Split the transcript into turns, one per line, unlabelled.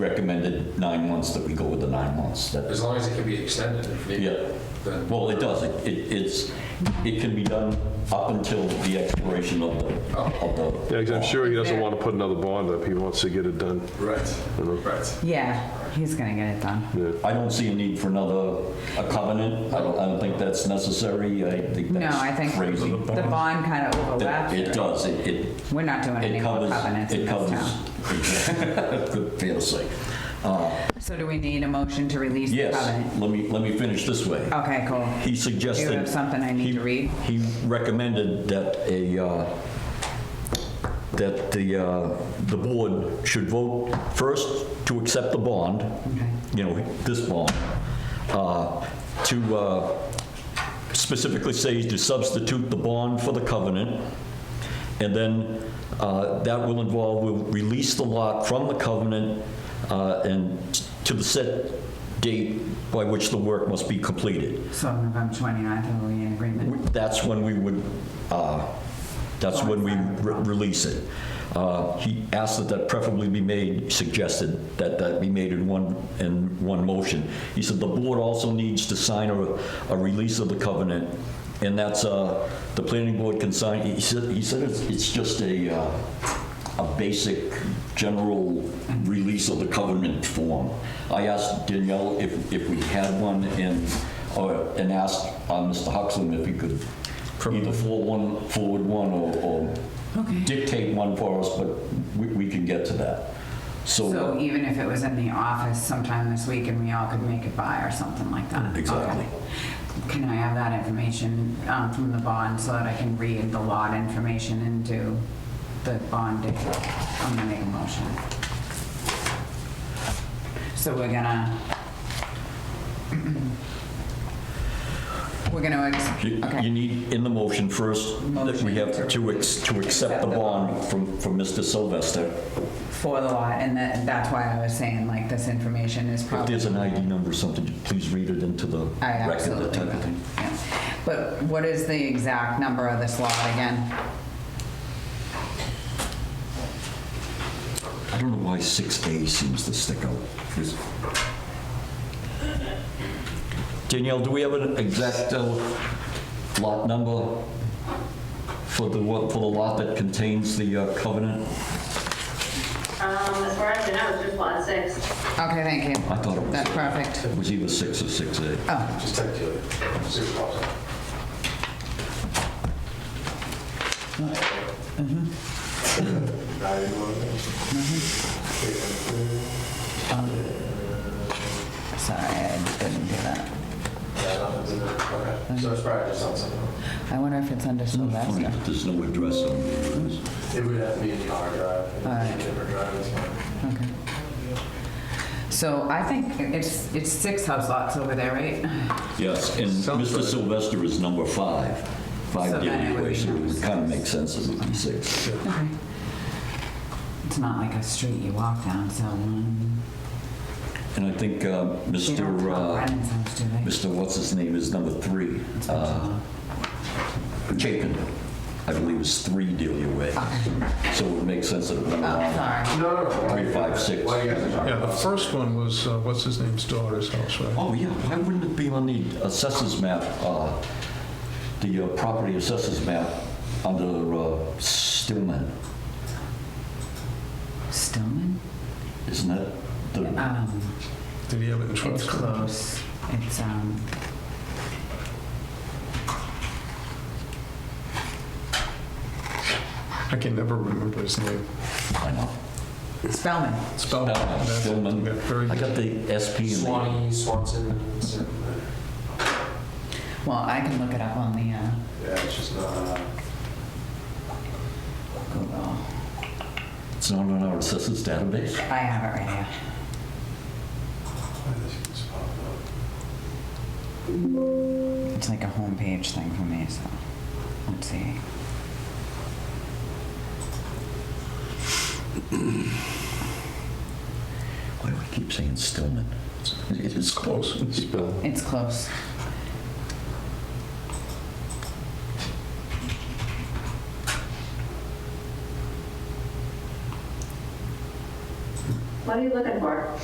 recommended nine months, that we go with the nine months. That-
As long as it can be extended if needed.
Yeah.
then-
Well, it does, It- it, it's, it can be done up until the expiration of the, of the.
Yeah, 'cause I'm sure he doesn't want to put another bond up. He wants to get it done.
Right, right.
Yeah, he's gonna get it done.
I don't see a need for another, a covenant, I don't, I don't think that's necessary, I think
No,
that's
I think
crazy.
the bond kind of
That-
overlaps.
It does, it, it,
We're not doing any
it
more
covers,
covenants in
it
this
covers.
town.
Good, fair to say.
So do we need a motion to release the
Yes,
covenant?
let me, let me finish this way.
Okay, cool.
He suggested.
Do you have something I need
he-
to read?
He recommended that a, uh, that the, uh, the board should vote first to accept the bond, you know, this bond, uh, to uh, specifically say to substitute the bond for the covenant, and then uh, that will involve, we'll release the lot from the covenant uh, and to the set date by which the work must be completed.
So November 29th, are we in agreement?
That's when we would, uh, that's when we re- release it. Uh, He asked that that preferably be made, suggested that that be made in one, in one motion. He said the board also needs to sign a, a release of the covenant, and that's, uh, the planning board can sign, he said, he said it's, it's just a, uh, a basic general release of the covenant form. I asked Danielle if, if we had one, and or, and asked uh, Mr. Huxham if he could either forward one, forward one or- or dictate one for us, but we, we can get to that.
So
So,
even if it was in the office sometime this week and we all could make it by or something like that?
Exactly.
Okay. Can I have that information um, from the bond so that I can read the lot information into the bond? if- I'm gonna make a motion. So we're gonna... We're gonna... ex-
you
okay.
you need in the motion first, that we have
Motion to-
to, ex- to accept the bond from, from Mr. Sylvester.
for the lot, and that, that's why I was saying, like, this information is
If
probably.
there's an ID number or something, please read it into the
I
record,
absolutely
that type of
will,
thing.
yeah. But what is the exact number of this lot again?
I don't know why 6A seems to stick out. Is- Danielle, do we have an exact uh, lot number for the, one- for the lot that contains the uh, covenant?
Um, as far as I know, it's just lot six.
Okay, thank you.
I thought it was-
That's perfect.
It was either 6 or 6A.
Oh,
Just take it, see what pops up.
Mm-hmm. sorry, I didn't do that.
Yeah, nothing's in there. Okay. So it's probably just on something.
I wonder if it's under
Funny,
Sylvester.
but there's no address on it.
It would have to be in the hard drive.
Alright.
Paper drive, that's fine.
Okay. So I think it's, it's six house lots over there, right?
Yes, and Mr. Sylvester is number 5, 5
So then it would be
Daly Way, so
number
it kind of makes sense that it would be 6.
Okay. It's not like a street you walk down, so. um,
And I think uh,
They
Mr.
don't
uh,
tell Brennan's house, do they?
Mr. What's-his-name is number three. uh, Chapin, I believe, is three Delia Way. So it makes sense that it would be
Oh, sorry.
No, no, no. why-
three, five, six.
Why you guys are talking
Yeah, the
about
first one was, uh, what's his name's daughter's house, right?
Oh, yeah, why wouldn't it be on the assessors map, uh, the uh, property assessors map under uh, Stillman?
Stillman?
Isn't that the,
Um,
Did he have it in trust?
it's close. It's, um,
I can never remember his name.
I know.
Spellman.
Spellman,
Spellman. Oh, That's it.
Spellman.
Yeah, very
I
good.
got the SP and the,
Swanee, Swanson, something.
Well, I can look it up on the uh,
yeah, it's just not, uh,
Google.
it's not on our assessors database?
I have it right here.
why this keeps popping up.
It's like a homepage thing for me, so let's see.
Why do I keep saying Stillman? It is close.
uh,
Spellman.
It's close.
What are you looking for?